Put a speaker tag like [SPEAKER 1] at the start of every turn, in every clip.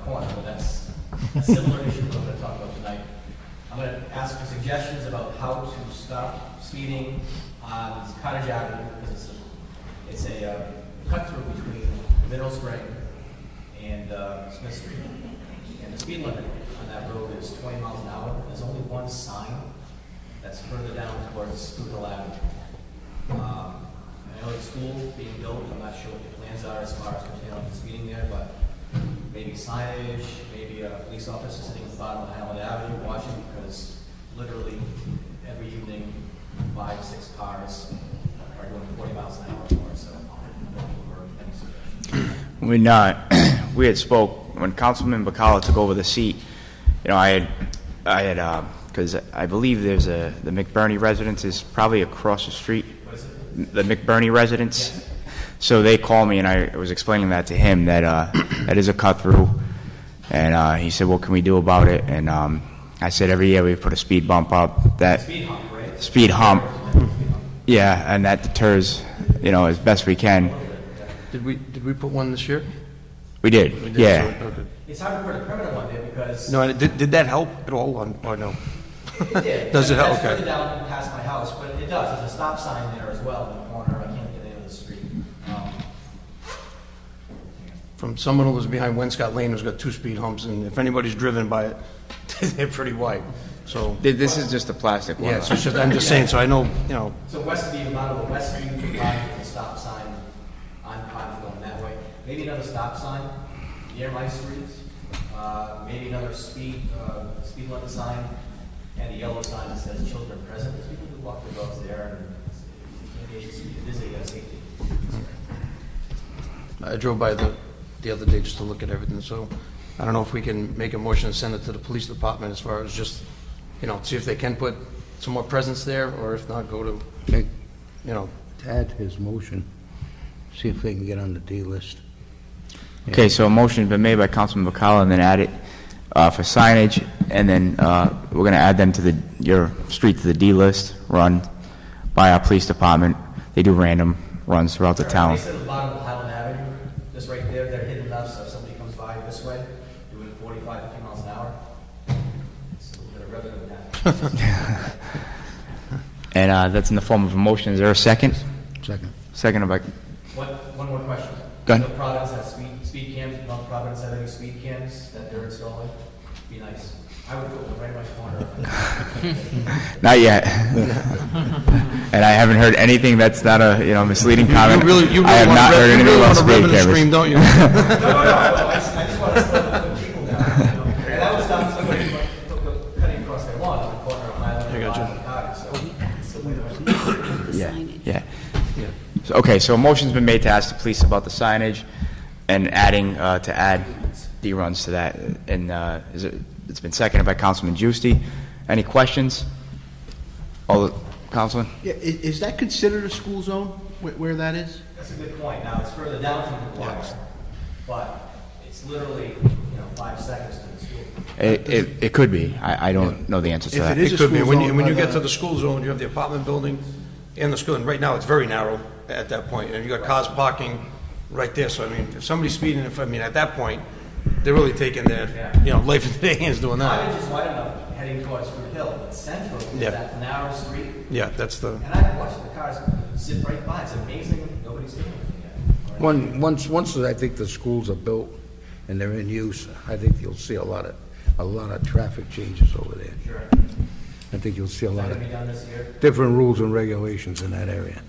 [SPEAKER 1] corner, but that's a similar issue we're gonna talk about tonight. I'm gonna ask for suggestions about how to stop speeding on Cottage Avenue, because it's a, it's a uh, cut through between Middle Spring and uh, Smith Street. And the speed limit on that road is twenty miles an hour, there's only one sign that's further down towards Schuylkill Avenue. Um, I know the school being built, I'm not sure what the plans are as far as containing the speeding there, but maybe signage, maybe a police officer sitting at the bottom of Highland Avenue watching, because literally every evening, five, six cars are going forty miles an hour or so. Or any suggestion.
[SPEAKER 2] When, uh, we had spoke, when Councilman Bacala took over the seat, you know, I had, I had, uh 'cause because I believe there's a, the McBurney residence is probably across the street.
[SPEAKER 1] What is it?
[SPEAKER 2] The McBurney residence. So they called me and I was explaining that to him, that, uh, that is a cut through. And, uh, he said, what can we do about it? And, um, I said, every year we put a speed bump up, that,
[SPEAKER 1] Speed hump, right?
[SPEAKER 2] Speed hump.
[SPEAKER 1] Speed hump.
[SPEAKER 2] yeah, and that deters, you know, as best we can.
[SPEAKER 3] Did we, did we put one this year?
[SPEAKER 2] We
[SPEAKER 3] We
[SPEAKER 2] did,
[SPEAKER 3] did,
[SPEAKER 2] yeah.
[SPEAKER 3] so- okay.
[SPEAKER 1] It's hard to put a permanent one there because.
[SPEAKER 3] No, and did, did that help at all, on- or no?
[SPEAKER 1] It did.
[SPEAKER 3] Does it help?
[SPEAKER 1] That's further
[SPEAKER 3] Okay.
[SPEAKER 1] down past my house, but it does, there's a stop sign there as well in the corner, I can't get into the street. Um,
[SPEAKER 3] From someone who was behind Wenscott Lane, who's got two speed humps, and if anybody's driven by it, they're pretty wide, so,
[SPEAKER 2] Th- This is just a plastic one.
[SPEAKER 3] yeah, so it's just, I'm just saying, so I know, you know,
[SPEAKER 1] So Westview, a lot of the Westview provides the stop sign on Pond going that way. Maybe another stop sign near my street, uh, maybe another speed, uh, speed limit sign, and a yellow sign that says children present, because people do walk their dogs there, and it's- maybe it's, it is a uh, safety.
[SPEAKER 3] I drove by the, the other day just to look at everything, so I don't know if we can make a motion and send it to the police department as far as just, you know, see if they can put some more presence there, or if not, go to,
[SPEAKER 4] Okay,
[SPEAKER 3] you know,
[SPEAKER 4] add his motion, see if they can get on the D list.
[SPEAKER 2] Okay, so a motion's been made by Councilman Bacala, and then add it uh, for signage, and then uh, we're going to add them to the, your street to the D list, run by our police department. They do random runs throughout the town.
[SPEAKER 1] They said the bottom of Highland Avenue, just right there, they're hidden enough, so if somebody comes by this way, doing 45, 50 miles an hour, it's a little bit of rather than that.
[SPEAKER 2] And uh, that's in the form of a motion. Is there a second?
[SPEAKER 4] Second.
[SPEAKER 2] Second by,
[SPEAKER 1] One, one more question.
[SPEAKER 2] Go ahead.
[SPEAKER 1] Will Providence have speed, speed cams, Mount Providence have any speed cams that they're installing? Be nice. I would put one right in my corner.
[SPEAKER 2] not yet. And I haven't heard anything that's not a, you know, misleading comment.
[SPEAKER 3] You really, you
[SPEAKER 2] I
[SPEAKER 3] really
[SPEAKER 2] have
[SPEAKER 3] want
[SPEAKER 2] not
[SPEAKER 3] to,
[SPEAKER 2] heard
[SPEAKER 3] you
[SPEAKER 2] anything
[SPEAKER 3] really
[SPEAKER 2] about
[SPEAKER 3] want to
[SPEAKER 2] speed
[SPEAKER 3] revenue
[SPEAKER 2] cameras.
[SPEAKER 3] stream, don't you?
[SPEAKER 1] No, no, no, I just, I just want to slow the people down, you know? And that would stop somebody from cutting across their lawn in the corner of Highland and
[SPEAKER 3] I gotcha.
[SPEAKER 1] Highland Cottage, so. so we don't-
[SPEAKER 2] Yeah, yeah. So, Okay, so a motion's been made to ask the police about the signage and adding, uh, to add D-runs to that. And, uh, is it, it's been seconded by Councilman Juicy. Any questions? All, the- Councilman?
[SPEAKER 5] Yeah, i- is that considered a school zone, where, where that is?
[SPEAKER 1] That's a good point. Now, it's further down from the corner, but it's literally, you know, five seconds to the school.
[SPEAKER 2] It, it, it could be. I, I don't know the answer to
[SPEAKER 5] If
[SPEAKER 2] that.
[SPEAKER 5] it is-
[SPEAKER 3] It could be,
[SPEAKER 5] school
[SPEAKER 3] when you,
[SPEAKER 5] zone,
[SPEAKER 3] when you
[SPEAKER 5] but,
[SPEAKER 3] get
[SPEAKER 5] uh,
[SPEAKER 3] to the school zone, you have the apartment building and the school, and right now, it's very narrow at that point, and you got cars parking right there, so I mean, if somebody's speeding, if, I mean, at that point, they're really taking their, you know, life into their hands doing
[SPEAKER 1] I
[SPEAKER 3] that.
[SPEAKER 1] was just wide enough heading towards Root Hill, but Central is
[SPEAKER 3] Yeah.
[SPEAKER 1] that narrow street,
[SPEAKER 3] Yeah, that's the,
[SPEAKER 1] and I've watched the cars zip right by. It's amazing, nobody's doing anything yet. Or-
[SPEAKER 4] One, once, once I think the schools are built and they're in use, I think you'll see a lot of, a lot of traffic changes over there.
[SPEAKER 1] Sure.
[SPEAKER 4] I think you'll see a lot
[SPEAKER 1] Gonna
[SPEAKER 4] of
[SPEAKER 1] be done this year.
[SPEAKER 4] different rules and regulations in that area.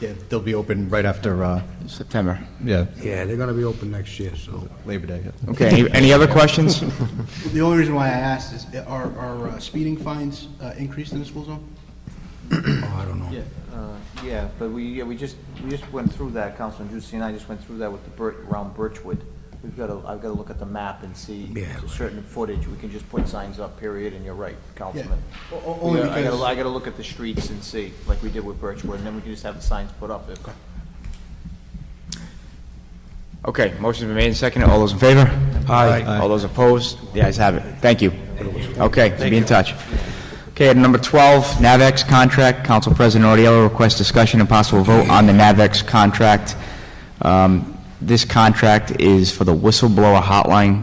[SPEAKER 6] Yeah, they'll be open right after, uh,
[SPEAKER 2] September.
[SPEAKER 6] yeah,
[SPEAKER 4] Yeah, they're gonna be open next year, so.
[SPEAKER 6] Labor Day. yeah.
[SPEAKER 2] Okay, any, any other questions?
[SPEAKER 5] The only reason why I asked is, are, are uh, speeding fines uh, increased in the school zone?
[SPEAKER 4] Oh, I don't know.
[SPEAKER 7] Uh, Yeah, but we, yeah, we just, we just went through that, Councilman Juicy and I just went through that with the Burt, around Birchwood. We've got to, I've got to look at the map and see
[SPEAKER 4] Yeah.
[SPEAKER 7] certain footage, we can just put signs up, period, and you're right, Councilman.
[SPEAKER 5] O- o-
[SPEAKER 7] We
[SPEAKER 5] Only
[SPEAKER 7] gotta- I gotta,
[SPEAKER 5] because,
[SPEAKER 7] I gotta look at the streets and see, like we did with Birchwood, and then we can just have the signs put up. if-
[SPEAKER 2] Okay, motion's been made and seconded. All those in favor?
[SPEAKER 6] Aye.
[SPEAKER 2] All those opposed? The ayes have it. Thank you. Okay, be in touch. Okay, item number 12, NAVEX contract. Council President Oriello requests discussion and possible vote on the NAVEX contract. Um, This contract is for the whistleblower hotline